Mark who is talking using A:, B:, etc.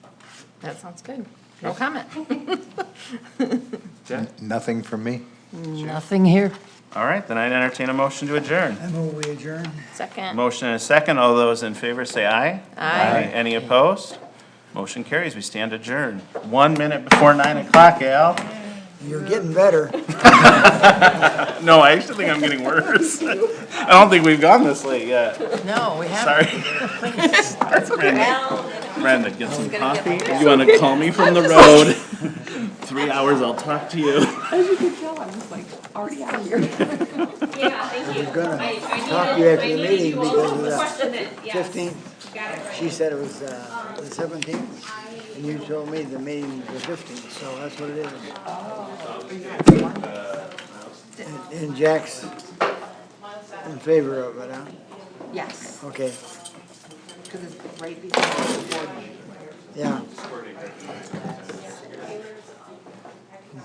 A: That sounds good. No comment.
B: Yeah.
C: Nothing from me.
D: Nothing here.
B: All right, then I'd entertain a motion to adjourn.
E: I move we adjourn.
A: Second.
B: Motion and a second. All those in favor say aye.
A: Aye.
B: Any opposed? Motion carries. We stand adjourned. One minute before nine o'clock, Al.
E: You're getting better.
B: No, I actually think I'm getting worse. I don't think we've gone this late yet.
D: No, we haven't.
B: Sorry. Sorry, Brenda. Brenda, get some coffee. You want to call me from the road? Three hours, I'll talk to you.
F: Yeah, thank you.
E: gonna
F: I- I needed-
E: talk to you after
F: I
E: the
F: needed
E: meeting
F: all
E: because of
F: to
E: the
F: Question it, yeah.
E: Fifteenth,
F: Got it right.
E: she said it was, uh, the seventeenth, and you told me the meeting was fifteenth, so that's what it is. And- And Jack's in favor of it, huh?
G: Yes,
E: Okay,
G: because it's right before the board meeting.
E: yeah.